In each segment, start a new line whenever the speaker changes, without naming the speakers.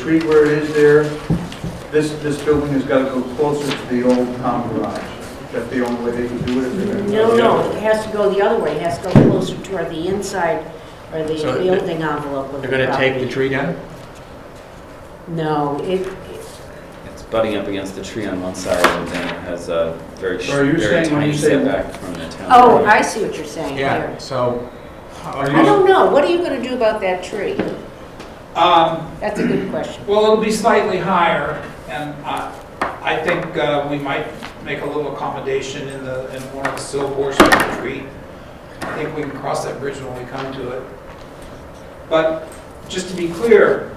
street where it is there, this, this building has got to go closer to the old town garage. That's the only way they can do it. if they're gonna-
No, no, it has to go the other way, it has to go closer toward the inside or the
So
building envelope of the
They're gonna take the
property.
tree down?
No, it,
It's butting up against the tree on one side and then it has a very, sh-
So are you
very
saying when
tiny
you say-
setback from the town.
oh,
road.
I see what you're saying
Yeah,
here.
so,
Are
I
you-
don't know, what are you gonna do about that tree?
Um,
That's a good question.
Well, it'll be slightly higher, and I I think uh, we might make a little accommodation in the, in one of the silvers of the tree. I think we can cross that bridge when we come to it. But just to be clear,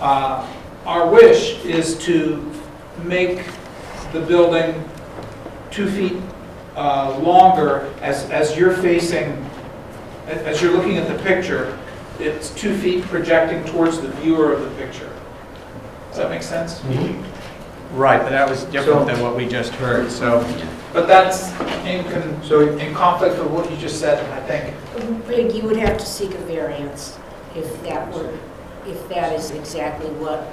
uh, our wish is to make the building two feet uh, longer as as you're facing, a- as you're looking at the picture, it's two feet projecting towards the viewer of the picture. Does that make sense?
right, but that was different than what we just heard, so.
But that's in, con-
So,
in conflict with what you just said, I think.
Big, you would have to seek a variance if that were, if that is exactly what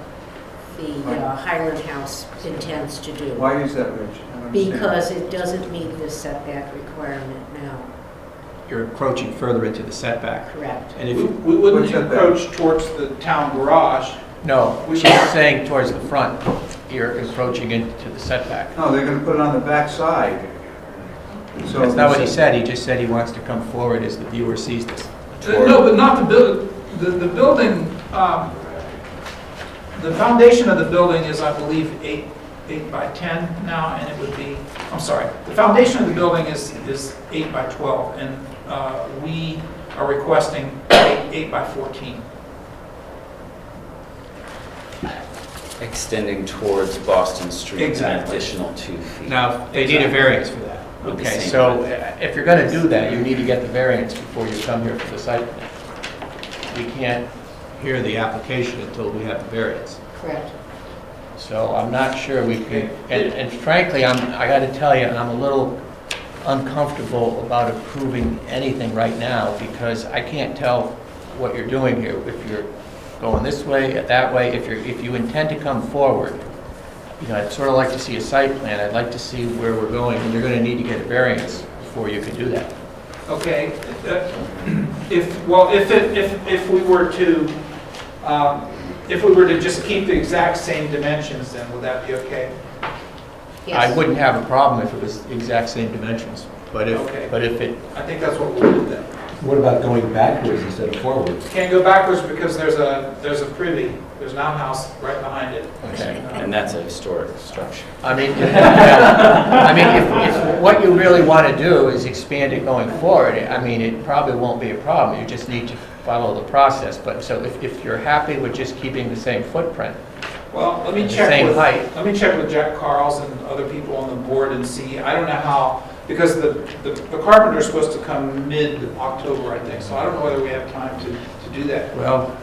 the uh, Highland House intends to do.
why is that, Rich? I don't understand.
Because it doesn't meet the setback requirement now,
You're encroaching further into the setback.
correct?
And if,
We
you
we wouldn't
What's that there?
approach towards the town garage.
no,
We
she's
should-
saying towards the front, you're encroaching into the setback.
No, they're going to put it on the back side. So
That's not what he said, he just said he wants to come forward as the viewer sees this.
Uh, No, but not the building, the, the building, um, the foundation of the building is, I believe, eight, eight by 10 now, and it would be, I'm sorry, the foundation of the building is, is eight by 12, and uh, we are requesting eight, eight by 14.
Extending towards Boston Street an
Exactly.
additional two feet.
Now, they need a
Exactly.
variance for that.
Would be
Okay,
same.
so uh, if you're gonna do that, you need to get the variance before you come here for the site plan. We can't hear the application until we have the variance.
Correct.
So I'm not sure we can, and and frankly, I'm, I gotta tell you, I'm a little uncomfortable about approving anything right now because I can't tell what you're doing here, if you're going this way, that way, if you're, if you intend to come forward. You know, I'd sort of like to see a site plan, I'd like to see where we're going, and you're gonna need to get a variance before you can do that.
Okay, uh, if, well, if, it- if, if we were to, um, if we were to just keep the exact same dimensions, then would that be okay?
I
Yes.
wouldn't have a problem if it was the exact same dimensions, but
Okay.
if, but if it.
I think that's what we'll do then.
What about going backwards instead of forwards?
Can't go backwards because there's a, there's a privy, there's an outhouse right behind it. Uh,
Okay.
And that's a historic structure.
I mean, yeah. I mean, if, if what you really want to do is expand it going forward, I mean, it probably won't be a problem. You just need to follow the process. But, so if, if you're happy with just keeping the same footprint,
Well, let me
The
check
same
with,
height.
let me check with Jack Carls and other people on the board and see, I don't know how, because the, the the carpenter's supposed to come mid-October, I think, so I don't know whether we have time to, to do that.
well,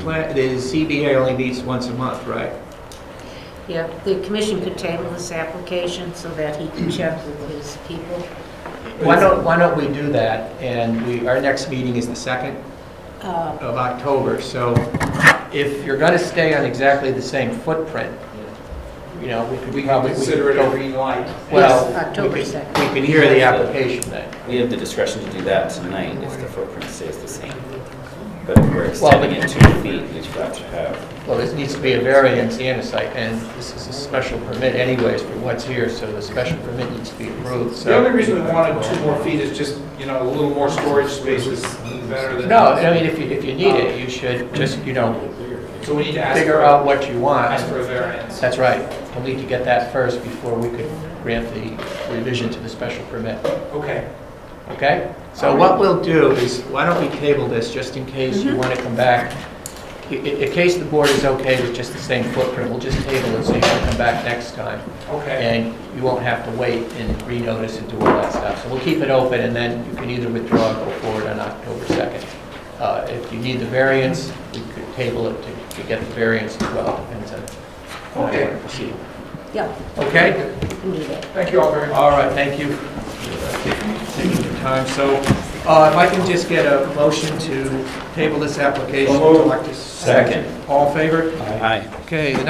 pla- the CBA only meets once a month, right?
Yeah, the commission could table this application so that he can check with his people.
Why don't, why don't we do that? And we, our next meeting is the second
Uh,
of October. So if you're going to stay on exactly the same footprint, you know, we
We
could
can
probably.
consider it
go
a green light.
Well,
Yes, October
we can-
second.
We can hear the application then.
We have the discretion to do that tonight if the footprint stays the same. But if we're
Well,
extending it two feet, we've got to have,
Well, this needs to be a variance and a site, and this is a special permit anyways for what's here, so the special permit needs to be approved,
The only
so.
reason we wanted two more feet is just, you know, a little more storage space is better than.
No, I mean, if you, if you need it, you should just, you know,
So we need to ask
figure
for,
out what you want.
ask for a variance.
That's right. We'll need to get that first before we could grant the revision to the special permit.
Okay,
Okay? So what we'll do is, why don't we table this, just in case you want to come back? I- i- In case the board is okay with just the same footprint, we'll just table it so you can come back next time.
okay.
And you won't have to wait and renotice and do all that stuff. So we'll keep it open, and then you can either withdraw or go forward on October 2nd. Uh, If you need the variance, we could table it to to get the variance as well, depends on how you want to proceed.
Yeah,
Okay?
you can do that.
Thank you all very much.
All right, thank you. Taking your time. So Uh, If I can just get a motion to table this application.
So moved.
All in favor?
Aye.
Okay, the